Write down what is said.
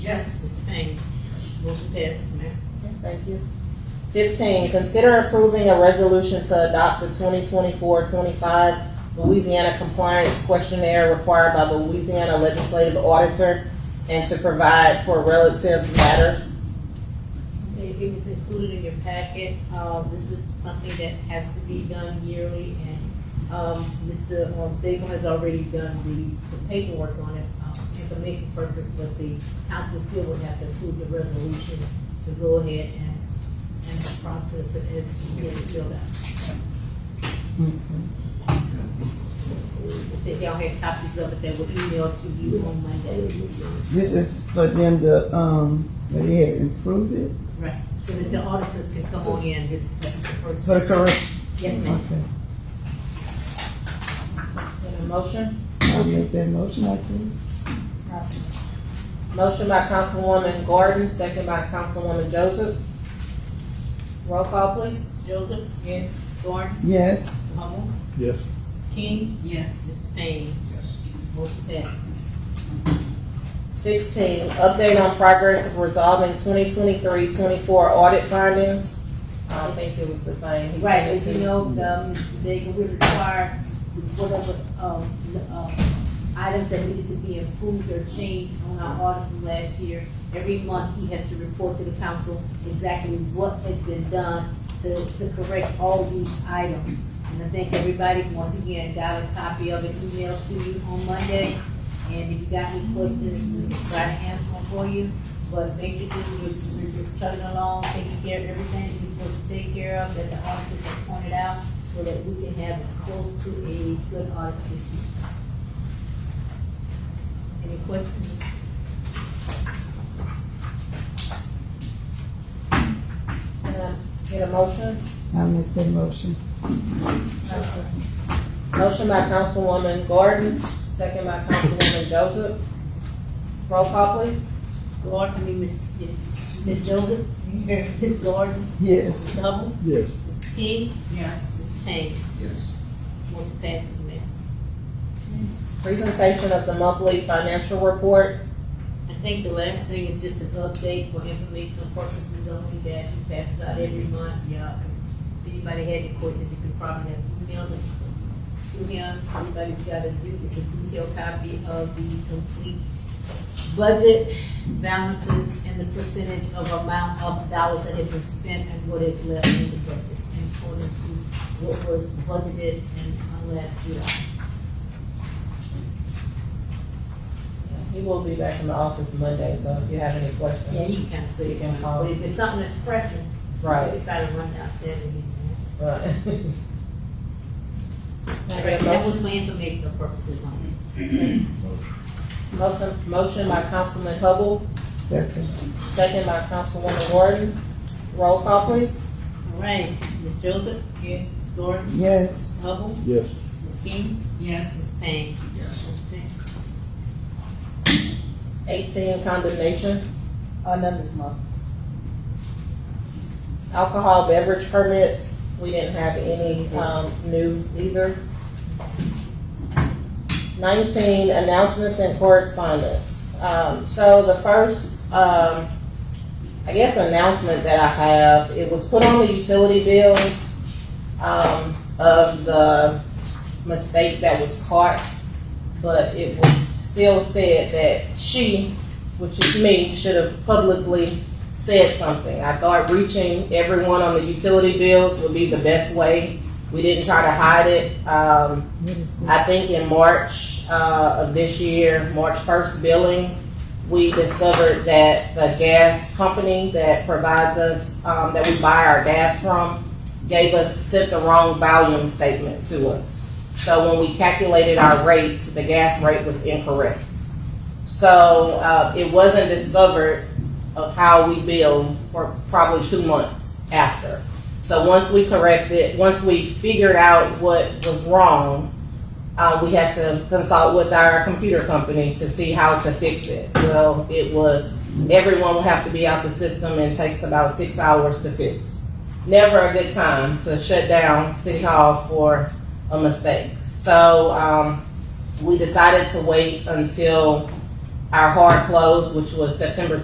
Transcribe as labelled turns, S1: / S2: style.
S1: Yes.
S2: Mr. Payne. Motion passes, Mayor.
S3: Thank you. Fifteen, consider approving a resolution to adopt the 2024-25 Louisiana compliance questionnaire required by the Louisiana Legislative Auditor and to provide for relative matters.
S2: Okay, it was included in your packet. Uh, this is something that has to be done yearly and, um, Mr. Daigle has already done the the paperwork on it, uh, information purpose, but the council still would have to approve the resolution to go ahead and, and process it as it is filled out.
S4: Mm-hmm.
S2: If y'all had copies of it, that were emailed to you on Monday.
S4: This is for them to, um, that they had improved it
S2: Right. So that the auditors can come on in, this, this is the first.
S4: for the correct.
S2: Yes, ma'am.
S4: Okay,
S3: And a motion?
S4: I'll make that motion, I think.
S3: Motion by Councilwoman Gordon, second by Councilwoman Joseph. Roll call, please.
S2: Joseph? Yes. Gordon?
S4: Yes,
S2: Humble?
S5: Yes.
S2: King?
S1: Yes.
S2: Payne?
S5: Yes.
S2: Motion passes.
S3: Sixteen, update on progress of resolving 2023-24 audit findings. I don't think it was the same.
S2: Right, as you know, um, they were required whatever, um, um, items that needed to be improved or changed on our audit from last year. Every month, he has to report to the council exactly what has been done to, to correct all these items. And I think everybody, once again, got a copy of it emailed to you on Monday. And if you got any questions, we'll try to answer them for you. But basically, we're, we're just chugging along, taking care of everything that we're supposed to take care of, that the auditors have pointed out, so that we can have as close to a good audit as we can. Any questions?
S3: Can I Get a motion?
S4: I'll make that motion.
S3: Motion by Councilwoman Gordon, second by Councilwoman Joseph. Roll call, please.
S2: Gordon, I mean, Ms. Ms. Joseph? Ms. Gordon?
S4: Yes,
S2: Ms. Hubble?
S5: Yes.
S2: Ms. King?
S1: Yes.
S2: Ms. Payne?
S5: Yes.
S2: Motion passes, Mayor.
S3: Presentation of the monthly financial report.
S2: I think the last thing is just an update for informational purposes only that he passes out every month, yeah. If anybody had any questions, you could probably have emailed it to him. Everybody's got a, it's a detailed copy of the complete budget balances and the percentage of amount of dollars that have been spent and what is left in the budget in accordance to what was budgeted in uh, last year.
S3: He will be back in the office Monday, so if you have any
S2: Yeah,
S3: questions.
S2: you can kind of say, it, but if it's something that's pressing,
S3: Right,
S2: We try to run downstairs and get you.
S3: right. Can I get
S2: That
S3: a motion?
S2: was my informational purposes only.
S3: Motion, motion by Councilman Hubble,
S4: second.
S3: second by Councilwoman Gordon. Roll call, please.
S2: All right, Ms. Joseph? Yeah. Ms. Gordon?
S4: Yes,
S2: Ms. Hubble?
S5: Yes.
S2: Ms. King?
S1: Yes.
S2: Ms. Payne?
S5: Yes.
S2: Ms. Payne.
S3: Eighteen, condemnation.
S1: Uh, none this month.
S3: Alcohol beverage permits, we didn't have any, um, new either. Nineteen, announcements and correspondence. Um, so the first, um, I guess announcement that I have, it was put on the utility bills, um, of the mistake that was caught, but it was still said that she, which is me, should have publicly said something. I thought reaching everyone on the utility bills would be the best way. We didn't try to hide it. Um,
S4: what is this?
S3: I think in March uh, of this year, March 1st billing, we discovered that the gas company that provides us, um, that we buy our gas from, gave us, sent the wrong volume statement to us. So when we calculated our rates, the gas rate was incorrect. So uh, it wasn't discovered of how we bill for probably two months after. So once we corrected, once we figured out what was wrong, uh, we had to consult with our computer company to see how to fix it. Well, it was, everyone will have to be out the system and takes about six hours to fix. Never a good time to shut down City Hall for a mistake. So, um, we decided to wait until our hard close, which was September